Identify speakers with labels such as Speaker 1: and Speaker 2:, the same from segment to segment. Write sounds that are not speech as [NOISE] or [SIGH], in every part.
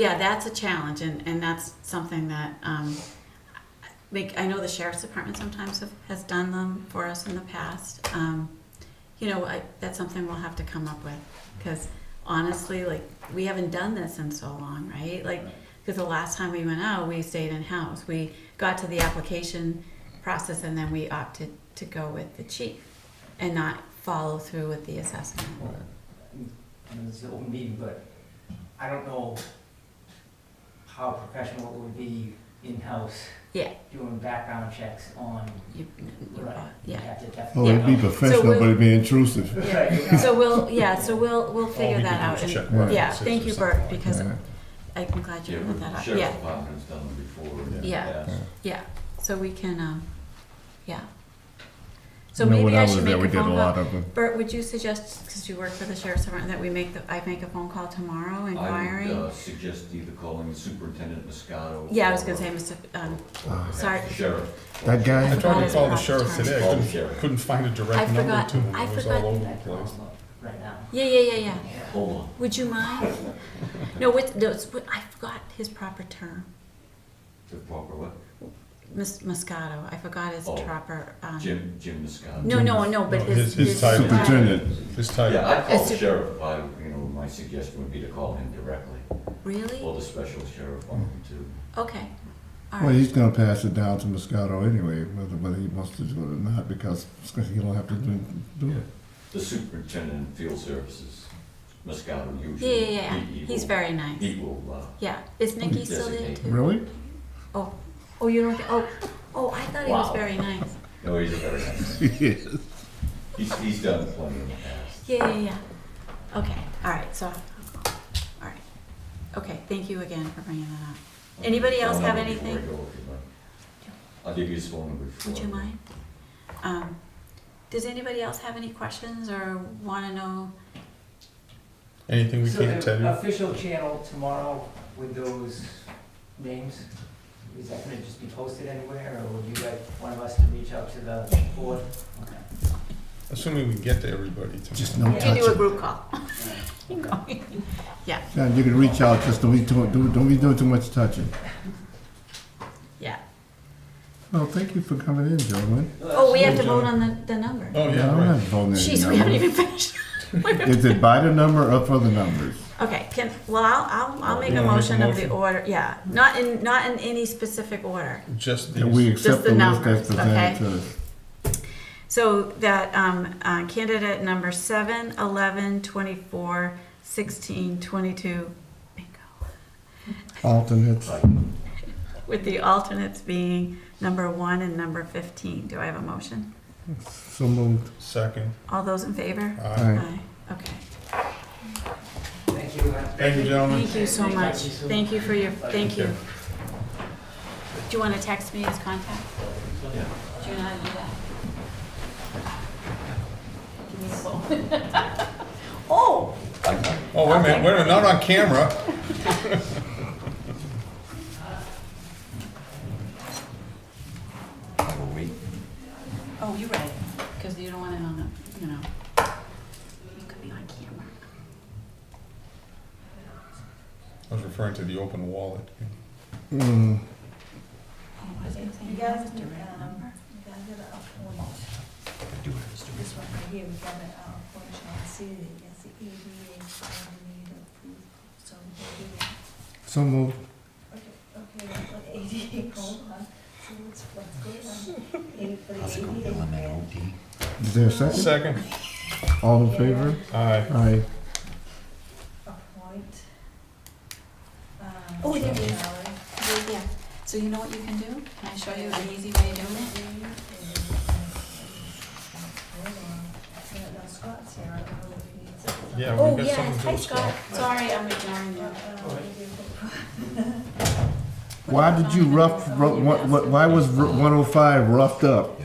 Speaker 1: Yeah, that's a challenge, and, and that's something that, um, like, I know the sheriff's department sometimes have, has done them for us in the past. Um, you know, I, that's something we'll have to come up with, because honestly, like, we haven't done this in so long, right? Like, because the last time we went out, we stayed in-house. We got to the application process, and then we opted to go with the chief and not follow through with the assessment.
Speaker 2: I mean, it's an open meeting, but I don't know how professional it would be in-house
Speaker 1: Yeah.
Speaker 2: doing background checks on,
Speaker 1: You- you-
Speaker 2: Right. you
Speaker 1: Yeah.
Speaker 2: have to
Speaker 3: Well,
Speaker 4: Oh,
Speaker 2: definitely.
Speaker 3: Oh, it'd be
Speaker 2: know.
Speaker 1: So
Speaker 3: professional,
Speaker 1: we'll-
Speaker 3: but it'd be intrusive.
Speaker 2: Right.
Speaker 1: So we'll, yeah, so we'll, we'll
Speaker 4: All we
Speaker 1: figure
Speaker 4: can
Speaker 1: that
Speaker 4: do
Speaker 1: out.
Speaker 4: is
Speaker 1: and-
Speaker 4: check
Speaker 3: Right.
Speaker 1: Yeah,
Speaker 4: boxes or
Speaker 1: thank you, Bert,
Speaker 4: something like
Speaker 1: because
Speaker 3: Yeah.
Speaker 1: I'm glad you
Speaker 5: Yeah,
Speaker 1: brought
Speaker 5: but
Speaker 1: that
Speaker 5: the
Speaker 1: up.
Speaker 5: sheriff's
Speaker 1: Yeah,
Speaker 5: department's done them before. in the
Speaker 1: Yeah.
Speaker 5: past.
Speaker 1: yeah, so we can, um, yeah. So
Speaker 3: You know, when
Speaker 1: maybe I
Speaker 3: was
Speaker 1: should
Speaker 3: there,
Speaker 1: make
Speaker 3: We
Speaker 1: a
Speaker 3: did a
Speaker 1: phone
Speaker 3: lot
Speaker 1: call.
Speaker 3: of them.
Speaker 1: Bert, would you suggest, because you work for the sheriff's department, that we make, the I make a phone call tomorrow
Speaker 5: I would
Speaker 1: inquiring?
Speaker 5: uh, suggest either calling the superintendent Moscato.
Speaker 1: Yeah, I was gonna
Speaker 5: or-
Speaker 1: say, Mr., um,
Speaker 3: Ah.
Speaker 1: sorry,
Speaker 5: Sheriff.
Speaker 3: That
Speaker 4: I
Speaker 3: guy,
Speaker 4: tried to call the
Speaker 1: Right.
Speaker 4: sheriff today, I
Speaker 5: Call the
Speaker 4: couldn't,
Speaker 5: sheriff.
Speaker 4: couldn't find a
Speaker 1: I
Speaker 4: direct number
Speaker 1: forgot-
Speaker 4: to him,
Speaker 1: I
Speaker 4: it was
Speaker 1: forgot-
Speaker 4: all over the
Speaker 2: That could
Speaker 4: place.
Speaker 2: also- Right now.
Speaker 1: yeah, yeah, yeah, yeah.
Speaker 5: Hold on.
Speaker 1: Would you mind? No, what, no, it's, what- I forgot his proper term,
Speaker 5: The proper what?
Speaker 1: Uh-huh. Ms. Moscato, I forgot his
Speaker 5: Oh.
Speaker 1: proper, um.
Speaker 5: Jim, Jim Moscato.
Speaker 1: No, no, no, but
Speaker 4: No,
Speaker 1: his.
Speaker 4: his- his title.
Speaker 3: superintendent,
Speaker 4: His title.
Speaker 5: Yeah, I'd
Speaker 1: Uh,
Speaker 5: call
Speaker 1: su-
Speaker 5: the sheriff, I, you know, my suggestion would be to call him directly,
Speaker 1: Really?
Speaker 5: or the special sheriff on him too.
Speaker 1: Okay, all
Speaker 3: well,
Speaker 1: right,
Speaker 3: he's gonna pass it down to Moscato anyway, whether, whether he wants to do it or not, because he'll have to do, do it.
Speaker 5: The superintendent in field services, Moscato
Speaker 1: yeah,
Speaker 5: usually.
Speaker 1: yeah, yeah,
Speaker 5: he- he
Speaker 1: he's
Speaker 5: will-
Speaker 1: very
Speaker 5: He
Speaker 1: nice,
Speaker 5: will, uh,
Speaker 1: yeah, is Nikki still there
Speaker 5: Designate.
Speaker 1: too?
Speaker 3: Really? [LAUGHS]
Speaker 1: Oh, oh, you don't, get- oh, oh, I thought he was
Speaker 5: Wow.
Speaker 1: very nice,
Speaker 5: no, he's a very nice,
Speaker 3: Yes.
Speaker 5: he's, he's done plenty in the past.
Speaker 1: yeah, yeah, yeah, okay, all right, so, all right, okay, thank you again for bringing that up. Anybody else
Speaker 5: Phone
Speaker 1: have
Speaker 5: number before I
Speaker 1: anything?
Speaker 5: go, if you mind. I'll give you his phone number before.
Speaker 1: Would you
Speaker 5: I go.
Speaker 1: mind? Um, does anybody else have any questions or wanna know?
Speaker 4: Anything we
Speaker 2: So
Speaker 4: can't tell
Speaker 2: the
Speaker 4: you?
Speaker 2: official channel tomorrow with those names, is that gonna just be posted anywhere, or would you like one of us to reach out to the board? Okay.
Speaker 4: Assuming we get to everybody
Speaker 3: Just
Speaker 4: tomorrow.
Speaker 3: no
Speaker 2: You
Speaker 1: You do a
Speaker 3: touching.
Speaker 1: group call. Yeah,
Speaker 3: Now, you can reach out, just don't be doing, do- don't be doing too much touching.
Speaker 1: yeah.
Speaker 3: Well, thank you for coming in, gentlemen.
Speaker 1: Oh, we have to
Speaker 4: Sure,
Speaker 1: vote on the, the number.
Speaker 4: Oh, yeah,
Speaker 3: I'm not
Speaker 4: right.
Speaker 3: voting any
Speaker 1: Jeez, we haven't
Speaker 3: numbers.
Speaker 1: even finished.
Speaker 3: Is it by the number or for the numbers?
Speaker 1: Okay, can, well, I'll, I'll, I'll make
Speaker 4: You
Speaker 1: a
Speaker 4: wanna make a
Speaker 1: motion of the
Speaker 4: motion?
Speaker 1: order, yeah, not in, not in any specific order.
Speaker 4: Just
Speaker 3: That we
Speaker 4: these,
Speaker 3: accept
Speaker 1: the
Speaker 3: the list that's
Speaker 1: numbers, okay.
Speaker 3: presented to us?
Speaker 1: So that, um, uh, candidate number seven, eleven, twenty-four, sixteen, twenty-two, bingo,
Speaker 3: Alternates,
Speaker 5: Like,
Speaker 1: with the alternates being number one and number fifteen. Do I have a motion?
Speaker 3: so moved.
Speaker 4: second.
Speaker 1: All those in favor?
Speaker 4: Aye.
Speaker 3: Aye.
Speaker 1: Aye, okay.
Speaker 2: Thank you. uh,
Speaker 4: Thank you, gentlemen.
Speaker 1: Thank you so much. Thank you for your, thank you. Do you wanna text me his contact?
Speaker 5: Yeah.
Speaker 1: Do you know how to do that? Give me a phone. [LAUGHS] Oh,
Speaker 5: I- I-
Speaker 4: Oh, wait a minute, wait a minute, not on camera.
Speaker 5: I will wait.
Speaker 1: oh, you read it, because you don't want it on the, you know. It could be on camera.
Speaker 4: I was referring to the open wallet.
Speaker 3: Mm.
Speaker 1: Oh, is it saying it has a direct number?
Speaker 5: I do have this to
Speaker 6: This one right here, we got an outpatient facility, that's the EDA coordinator approved, so we do it.
Speaker 3: So moved.
Speaker 6: Okay, okay, that's what ADA called, huh? So what's, what's going on? Eight for the ADA grant.
Speaker 3: Is there a second?
Speaker 4: Second,
Speaker 3: All in favor?
Speaker 4: aye.
Speaker 3: Aye.
Speaker 6: Appoint. um,
Speaker 1: Oh, there it is.
Speaker 6: salary.
Speaker 1: Yeah, yeah. So you know what you can do? Can I show you an easy way of doing it?
Speaker 6: Hold on, I think that's Scott's here, I don't know if he needs it.
Speaker 4: Yeah,
Speaker 1: Oh,
Speaker 4: we've got something
Speaker 1: yes,
Speaker 4: to
Speaker 1: hi
Speaker 4: discuss.
Speaker 1: Scott, sorry, I'm ignoring you.
Speaker 6: Uh, uh,
Speaker 3: Why did you rough, ru- what- what- why was Ru- 105 roughed up?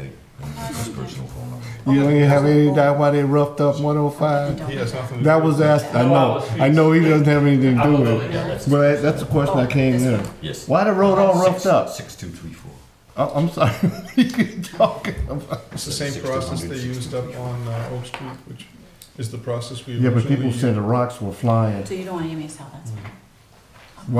Speaker 3: You don't even have any idea why they roughed up 105?
Speaker 4: He has nothing to do
Speaker 3: That was asked, I know, I know he doesn't have anything to do with it, but that- that's the question I came
Speaker 1: Oh,
Speaker 3: in.
Speaker 5: Yes.
Speaker 3: Why the road all roughed up?
Speaker 5: Six, two, three, four.
Speaker 3: I- I'm sorry, [LAUGHS] what are you talking about?
Speaker 4: It's the same process they used up on uh, Oak Street, which is the process we
Speaker 3: Yeah, but
Speaker 4: originally
Speaker 3: people
Speaker 4: used.
Speaker 3: said the rocks were flying.
Speaker 1: So you don't want to give me a cell, that's fine.